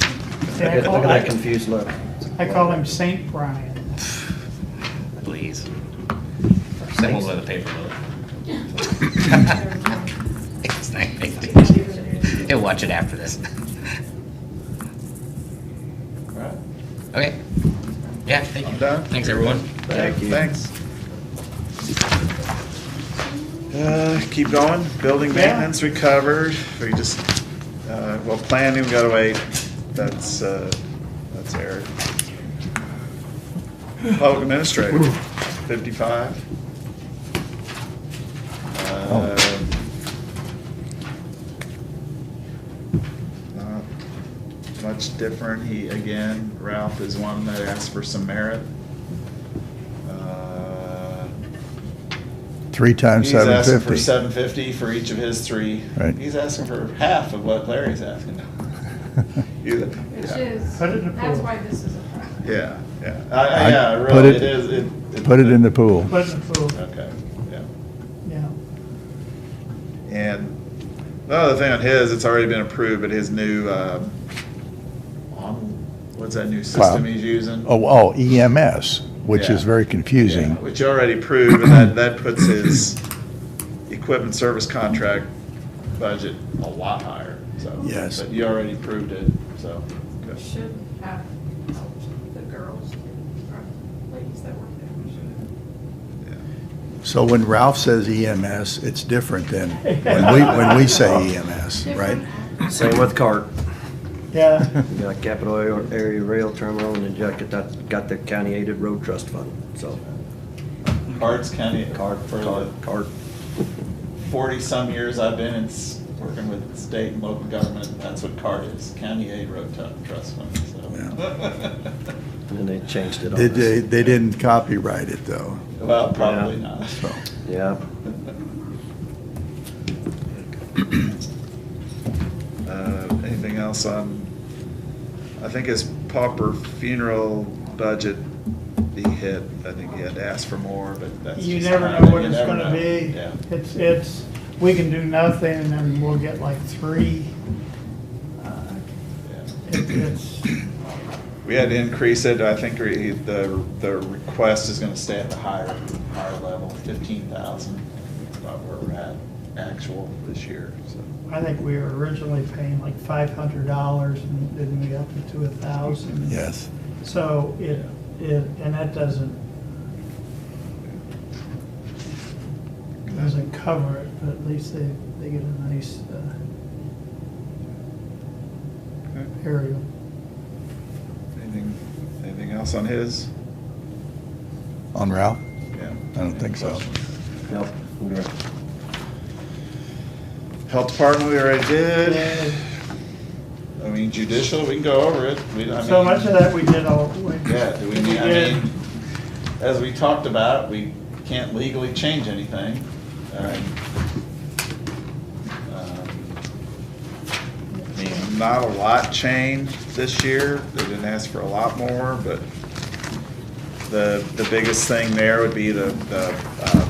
See, Look I at look at call, that I, confused look. I call him Saint Brian. Please. Similar to the paper boat. It's not a big deal. He'll watch it after this. Alright. Okay. Yeah, thank I'm you. done. Thanks, everyone. Thank you. Thanks. Uh, Keep going, building maintenance recovered, we just, uh, well, planning got away, that's, uh, that's Eric. Public administrator, fifty-five. Oh. Um, Uh, Not Much different, he, again, Ralph is one that asked for some merit. Uh, Three times He's asking seven for fifty. seven fifty for each of his three. Right. He's asking for half of what Larry's asking. You- Which yeah. is, Put it in a that's pool. why this is a problem. Yeah, yeah. I- I- I'd Yeah, put really, it- it is. it- Put it in the pool. But, oh, Okay, yeah. yeah, And the other thing on his, it's already been approved, but his new, um, on- what's that new system Cloud. he's using? Oh, oh, EMS, which is Yeah. very Yeah, confusing. Which you already proved, and that, that puts his equipment service contract budget a lot higher, so. Yes. But you already proved it, so. We good. should have helped the girls, or ladies that work there, we should Yeah. So when Ralph says EMS, it's different than when we, when we say E EMS, have. right? Different- Same with CART. yeah. We got Capital Area- Area Rail Terminal and then got the- got the County Aided Road Trust Fund, so. Cards County, CART, card for CART, the CART. forty-some years I've been in, s- working with state and local government, that's what card is, county aid road Tu- trust fund, so. And then they changed it on They, they, us. they didn't copyright it though. Well, probably Yeah. not. So. Yeah. Uh, Anything else on, I think his pauper funeral budget, he hit, I think he had asked for more, but that's You just never kind know of- what you it's never gonna know. be. Yeah. It's, it's, we can do nothing and then we'll get like three. Uh, yeah. it- It's, We had to increase it, I think re- the, the request is gonna stay at the higher, higher level, fifteen thousand, about where we're at actual this year, so. I think we were originally paying like five hundred dollars and then we upped it to a thousand. Yes. So it, it, and that doesn't, doesn't cover it, but at least they, they get a nice uh, aerial. Anything, anything else on his? On Ralph? Yeah. I don't think so. Yep. Okay. Health department, we already did. Yeah. I mean judicial, we can go over it. We- I So mean- much of that we did all. we- Yeah, do we need, I did. mean, as we talked about, we can't legally change anything. Um, um, I mean, Not a lot changed this year, they didn't ask for a lot more, but the, the biggest thing there would be the, the uh,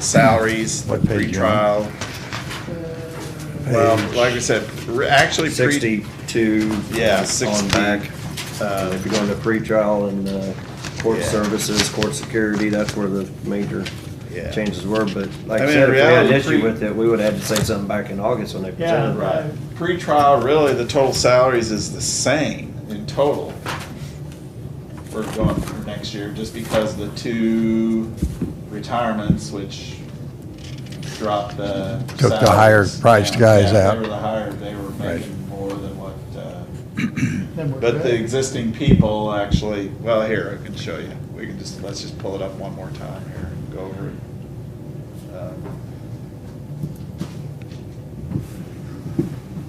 salaries, the What page you pretrial. on? uh, Well, Page like I said, re- actually. pre- Sixty-two. Yeah, On 60. back. Uh, And if you're going to pretrial and uh, court Yeah. services, court security, that's where the major Yeah. changes were, but like I I said, if mean, in we had an reality, issue pre- with it, we would have had to say something back in August when they Yeah. presented. Right. Pre-trial, really, the total salaries is the same in total. We're going for next year, just because the two retirements, which dropped the. Took the higher salaries priced down. guys Yeah, out. They were the higher, they were Right. making more than what, uh, Then we're but the good. existing people actually, well, here, I can show you. We can just, let's just pull it up one more time here and go over it. Um,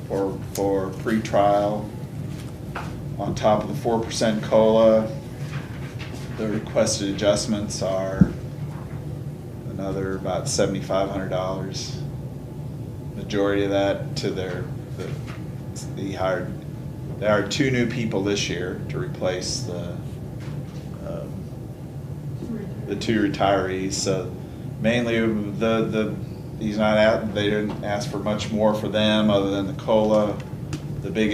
For, for pretrial, on top of the four percent COLA, the requested adjustments are another about seventy-five hundred dollars. Majority of that to their, the, the hired, there are two new people this year to replace the, um, the two retirees, so mainly the, the, he's not out, they didn't ask for much more for them other than the COLA. The big